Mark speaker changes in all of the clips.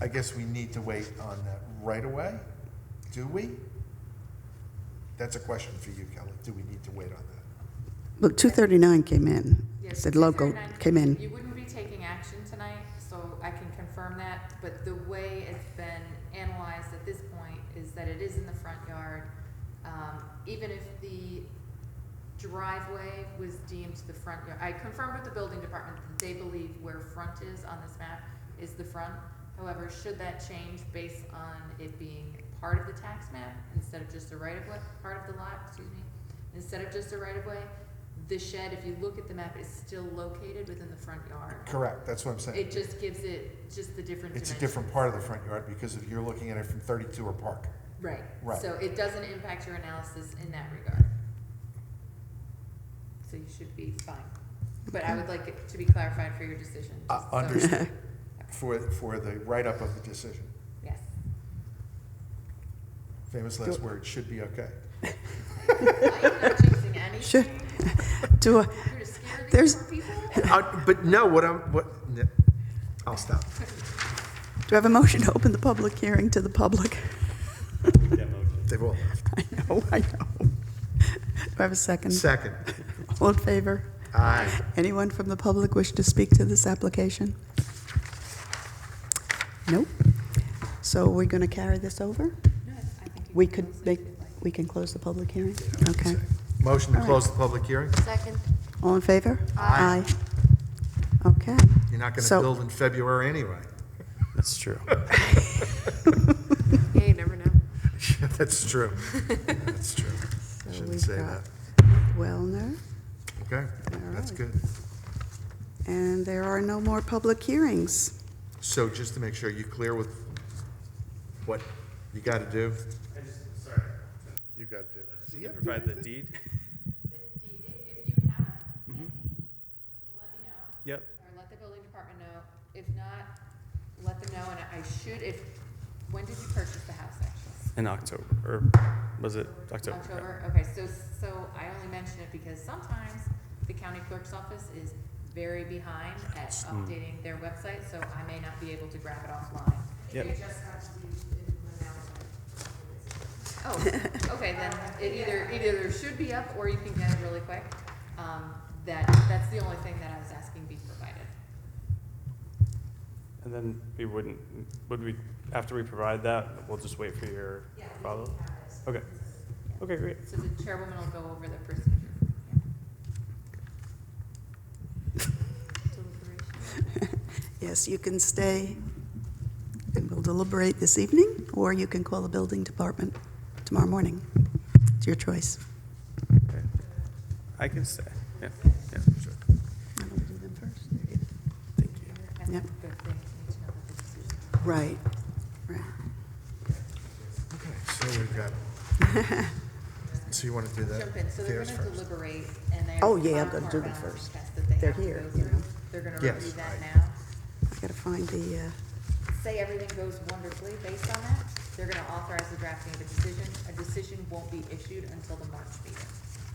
Speaker 1: I guess we need to wait on that right away? Do we? That's a question for you, Kelly. Do we need to wait on that?
Speaker 2: Look, 239 came in,
Speaker 3: Yes,
Speaker 2: said local,
Speaker 3: 239
Speaker 2: came in.
Speaker 3: You wouldn't be taking action tonight, so I can confirm that, but the way it's been analyzed at this point is that it is in the front yard. Um, even if the driveway was deemed the front yard, I confirmed with the building department that they believe where front is on this map is the front. However, should that change based on it being part of the tax map instead of just a right of way, part of the lot, excuse me, instead of just a right of way, the shed, if you look at the map, is still located within the front yard.
Speaker 1: Correct, that's what I'm saying.
Speaker 3: It just gives it just the different
Speaker 1: It's a
Speaker 3: dimension.
Speaker 1: different part of the front yard because if you're looking at it from thirty-two or Park.
Speaker 3: Right.
Speaker 1: Right.
Speaker 3: So it doesn't impact your analysis in that regard. So you should be fine. But I would like it to be clarified for your decision.
Speaker 1: Uh,
Speaker 3: just so-
Speaker 1: Understood, for, for the write-up of the decision.
Speaker 3: Yes.
Speaker 1: Famous last word, should be okay.
Speaker 3: You're not jinxing
Speaker 2: Sure.
Speaker 3: anything.
Speaker 2: Do, I-
Speaker 3: You're gonna scare these
Speaker 2: There's-
Speaker 3: poor people?
Speaker 1: Uh, But no, what I'm, what, no. I'll stop.
Speaker 2: do I have a motion to open the public hearing to the public?
Speaker 1: They've all left.
Speaker 2: I know, I know. Do I have a second?
Speaker 1: Second,
Speaker 2: All in favor?
Speaker 1: aye.
Speaker 2: Anyone from the public wish to speak to this application? Nope. So we're going to carry this over?
Speaker 3: No, I think you
Speaker 2: We
Speaker 3: can close
Speaker 2: could
Speaker 3: it
Speaker 2: make,
Speaker 3: if you'd like.
Speaker 2: we can close the public hearing? Okay.
Speaker 1: Motion to
Speaker 2: All right.
Speaker 1: close the public hearing?
Speaker 4: Second.
Speaker 2: All in favor?
Speaker 1: Aye.
Speaker 2: Aye. Okay.
Speaker 1: You're not gonna
Speaker 2: So-
Speaker 1: build in February anyway.
Speaker 5: That's true.
Speaker 4: Yeah, you never know.
Speaker 1: Yeah, That's true. That's true.
Speaker 2: So
Speaker 1: Shouldn't
Speaker 2: we've
Speaker 1: say that.
Speaker 2: got Wellner,
Speaker 1: Okay,
Speaker 2: All
Speaker 1: that's
Speaker 2: right.
Speaker 1: good.
Speaker 2: and there are no more public hearings.
Speaker 1: So just to make sure you clear with what you gotta do,
Speaker 5: I just, sorry,
Speaker 1: you gotta do.
Speaker 5: just need to provide the deed.
Speaker 3: If you have it, let me know.
Speaker 5: Yep.
Speaker 3: Or let the building department know. If not, let them know, and I should, if, when did you purchase the house, actually?
Speaker 5: In October, or was it October? Yeah.
Speaker 3: October, okay, so, so I only mention it because sometimes the county clerk's office is very behind at updating their website, so I may not be able to grab it offline.
Speaker 5: Yep.
Speaker 3: Oh, okay, then it either, either there should be up, or you can get it really quick. Um, that, that's the only thing that I was asking be provided.
Speaker 5: And then we wouldn't, would we, after we provide that, we'll just wait for your follow? Okay. Okay, great.
Speaker 3: So the chairwoman will go over the procedure.
Speaker 2: Yes, you can stay and we'll deliberate this evening, or you can call the building department tomorrow morning. It's your choice.
Speaker 5: Okay. I can stay. Yeah, yeah, sure. Thank you.
Speaker 3: That's a
Speaker 2: Yep.
Speaker 3: good thing, need to know what the decision is.
Speaker 2: Right, right.
Speaker 1: Okay, so we've got, so you wanna do that?
Speaker 3: jump in, so they're
Speaker 1: theirs
Speaker 3: gonna
Speaker 1: first.
Speaker 3: deliberate, and they're.
Speaker 2: Oh, yeah, I'm
Speaker 3: farm
Speaker 2: gonna do
Speaker 3: court
Speaker 2: them
Speaker 3: balance
Speaker 2: first.
Speaker 3: test that they
Speaker 2: They're
Speaker 3: have to
Speaker 2: here,
Speaker 3: go
Speaker 2: you
Speaker 3: through.
Speaker 2: know.
Speaker 3: They're gonna
Speaker 1: Yes,
Speaker 3: review that
Speaker 1: right.
Speaker 3: now.
Speaker 2: I gotta find the, uh,
Speaker 3: Say everything goes wonderfully based on that, they're gonna authorize the drafting of a decision. A decision won't be issued until the March meeting.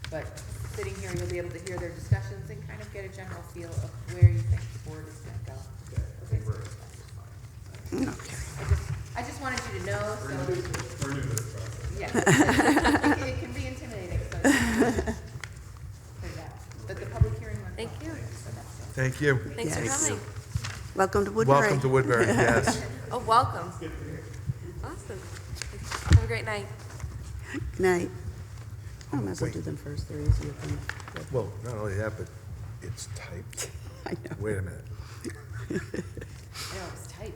Speaker 3: But sitting here, you'll be able to hear their discussions and kind of get a general feel of where you think the board is gonna go.
Speaker 2: Mm.
Speaker 3: I just, I just wanted you to know, so. We're new to this Yeah. It- It can be intimidating, so. so, yeah. But the public hearing went well.
Speaker 4: Thank you.
Speaker 3: So that's it.
Speaker 1: Thank you.
Speaker 4: Thanks for
Speaker 2: Yes.
Speaker 4: coming.
Speaker 2: welcome to Woodbury.
Speaker 1: Welcome to Woodbury, yes.
Speaker 4: Oh, welcome. Awesome. Have a great night.
Speaker 2: Good night. I Oh, might as well
Speaker 1: Wait.
Speaker 2: do them first, they're easier than,
Speaker 1: Well, not only that, but it's typed.
Speaker 2: I know,
Speaker 1: Wait a minute.
Speaker 3: I know, it was tight.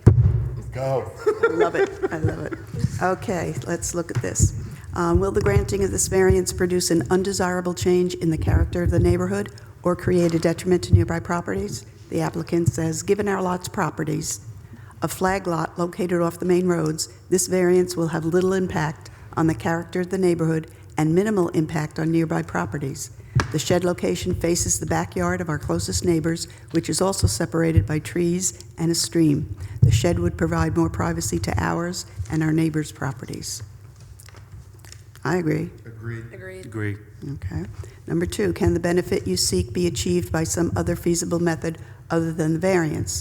Speaker 1: Go.
Speaker 2: I love it, I love it. Okay, let's look at this. Um, Will the granting of this variance produce an undesirable change in the character of the neighborhood or create a detriment to nearby properties? The applicant says, given our lot's properties, a flag lot located off the main roads, this variance will have little impact on the character of the neighborhood and minimal impact on nearby properties. The shed location faces the backyard of our closest neighbors, which is also separated by trees and a stream. The shed would provide more privacy to ours and our neighbors' properties. I agree.
Speaker 1: Agreed.
Speaker 4: Agreed.
Speaker 5: Agree.
Speaker 2: Okay. Number two, can the benefit you seek be achieved by some other feasible method other than the variance?